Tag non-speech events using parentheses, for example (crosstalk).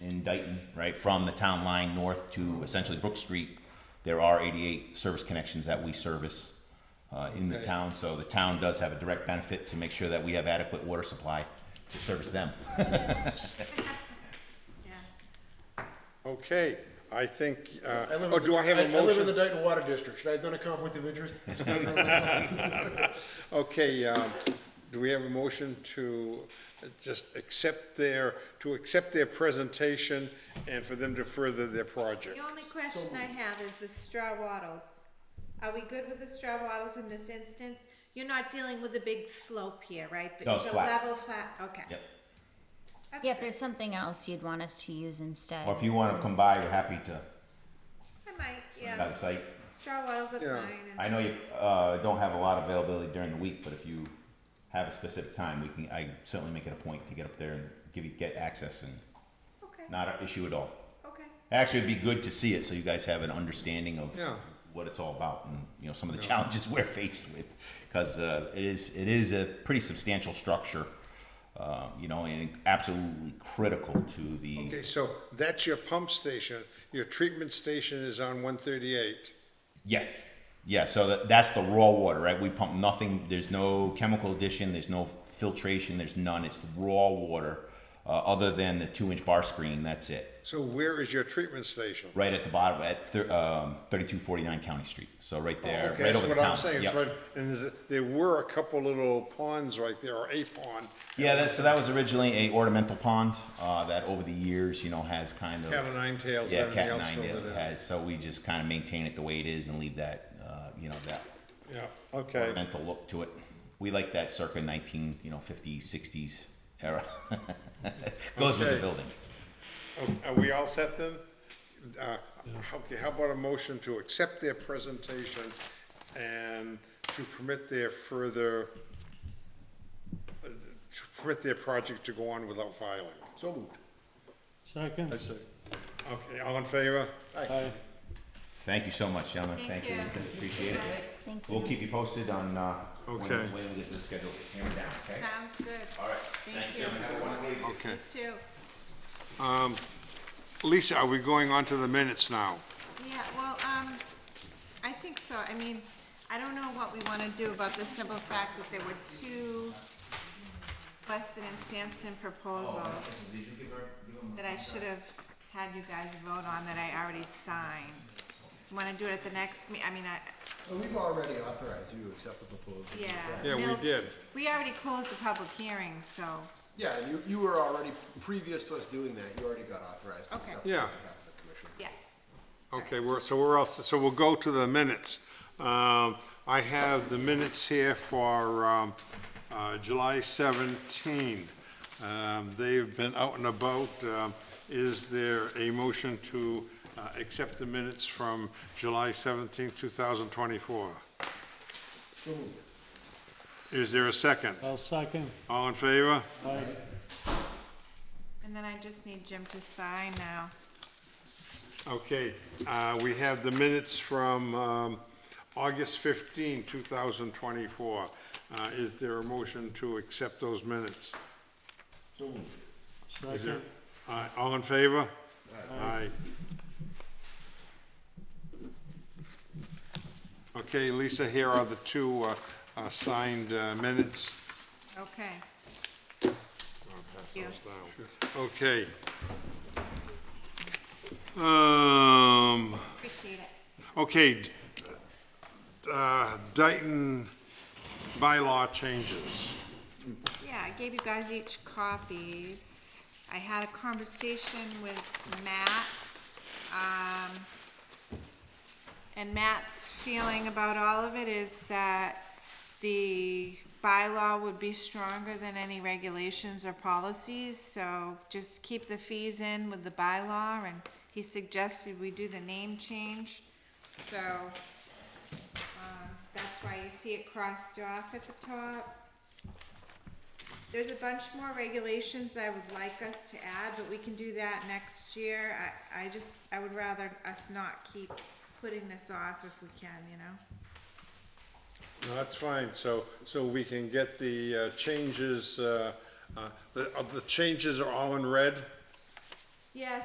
in Dayton, right, from the town line north to essentially Brook Street, there are 88 service connections that we service uh, in the Okay. town. So the town does have a direct benefit to make sure that we have adequate water supply to service them. Okay, I think, uh, I live oh, in do the- I have a I live in the motion? Dayton Water District. Should I have done a conflict (laughs) of interest? Okay, um, do we have a motion to just accept their, to accept their presentation and for them to further their project? The only question I have is the straw wattles. Are we good with the straw wattles in this instance? You're not dealing with a big slope here, right? No, it's a flat. level flat, okay. Yep. That's Yeah, if good. there's something else you'd want us to use instead. Or if you want to come by, we're happy to, I might, by yeah, the site. straw wattles are Yeah. fine I and know you uh, don't have a lot of availability during the week, but if you have a specific time, we can, I certainly make it a point to get up there and give you, get access and okay, not an issue at all. okay. Actually, it'd be good to see it so you guys have an understanding of Yeah. what it's all about and you know some of the challenges (laughs) we're faced with because uh, it is it is a pretty substantial structure, uh, you know, and absolutely critical to the. Okay, so that's your pump station. Your treatment station is on one thirty-eight. Yes. Yeah, so that, that's the raw water, right? We pump nothing. There's no chemical addition. There's no filtration. There's none. It's raw water, uh, other than the two-inch bar screen. That's it. So where is your treatment station? Right at the bottom, at thir- um, 3249 County Street. So right there, Oh, Okay, right that's over what the I'm town. saying. It's Yep. right, and there's, a- there were a couple little ponds right there, or a pond. Yeah, that, so that was originally a ornamental pond uh, that, over the years, you know, has kind of Cat o' nine tails and yeah, everything cat else nine filled tails it in. has. So we just kind of maintain it the way it is and leave that, uh, you know, that Yeah, okay. ornamental look to it. We like that circa 19, you know, 50s, 60s era. (laughs) Goes with the Okay. building. Oh, Are we all set then? Uh, Okay, how about a motion to accept their presentation and to permit their further, uh, to permit their project to go on without filing? So moved. Second? Okay, all in favor? Aye. Thank you so much, gentlemen. Thank Thank you, you. Lisa. Appreciate it. Thank you. We'll keep you posted on uh, when Okay. when we get this schedule hammered down, okay? Sounds good. All right. Thank you. gentlemen. Have a wonderful evening. Okay. You too. Lisa, are we going on to the minutes now? Yeah, well, um, I think so. I mean, I don't know what we wanna do about the simple fact that there were two Weston and Sampson proposals. Did you give her, give them? that I should have had you guys vote on that I already signed. Want to do it at the next, me- I mean, I, So we've already authorized you to accept the proposal. yeah. Yeah, we Mil- did. We already closed the public hearing, so, Yeah, and you, you were already, previous to us doing that, you already got authorized to Okay. accept. Yeah. On behalf of the commission. yeah. Okay, we're, so we're all, so we'll go to the minutes. Um, I have the minutes here for, um, uh, July seventeen. Um, they've been out and about. Um, is there a motion to, uh, accept the minutes from July seventeenth, two thousand twenty-four? Is there a second? I'll second. All in favor? Aye. And then I just need Jim to sign now. Okay, uh, we have the minutes from um, August 15, 2024. Uh, Is there a motion to accept those minutes? Is there- Second? uh, All in favor? Aye. Okay, Lisa, here are the two uh, uh, signed uh, minutes. Okay. Thank you. Okay. Um, Appreciate it. Okay, d- uh, Dayton bylaw changes. Yeah, I gave you guys each copies. I had a conversation with Matt, um, and Matt's feeling about all of it is that the bylaw would be stronger than any regulations or policies, so just keep the fees in with the bylaw, and he suggested we do the name change, so, um, that's why you see it crossed off at the top. There's a bunch more regulations I would like us to add, but we can do that next year. I, I just, I would rather us not keep putting this off if we can, you know? No, that's fine, so, so we can get the uh, changes, uh, uh, the, uh, the changes are all in red? Yes,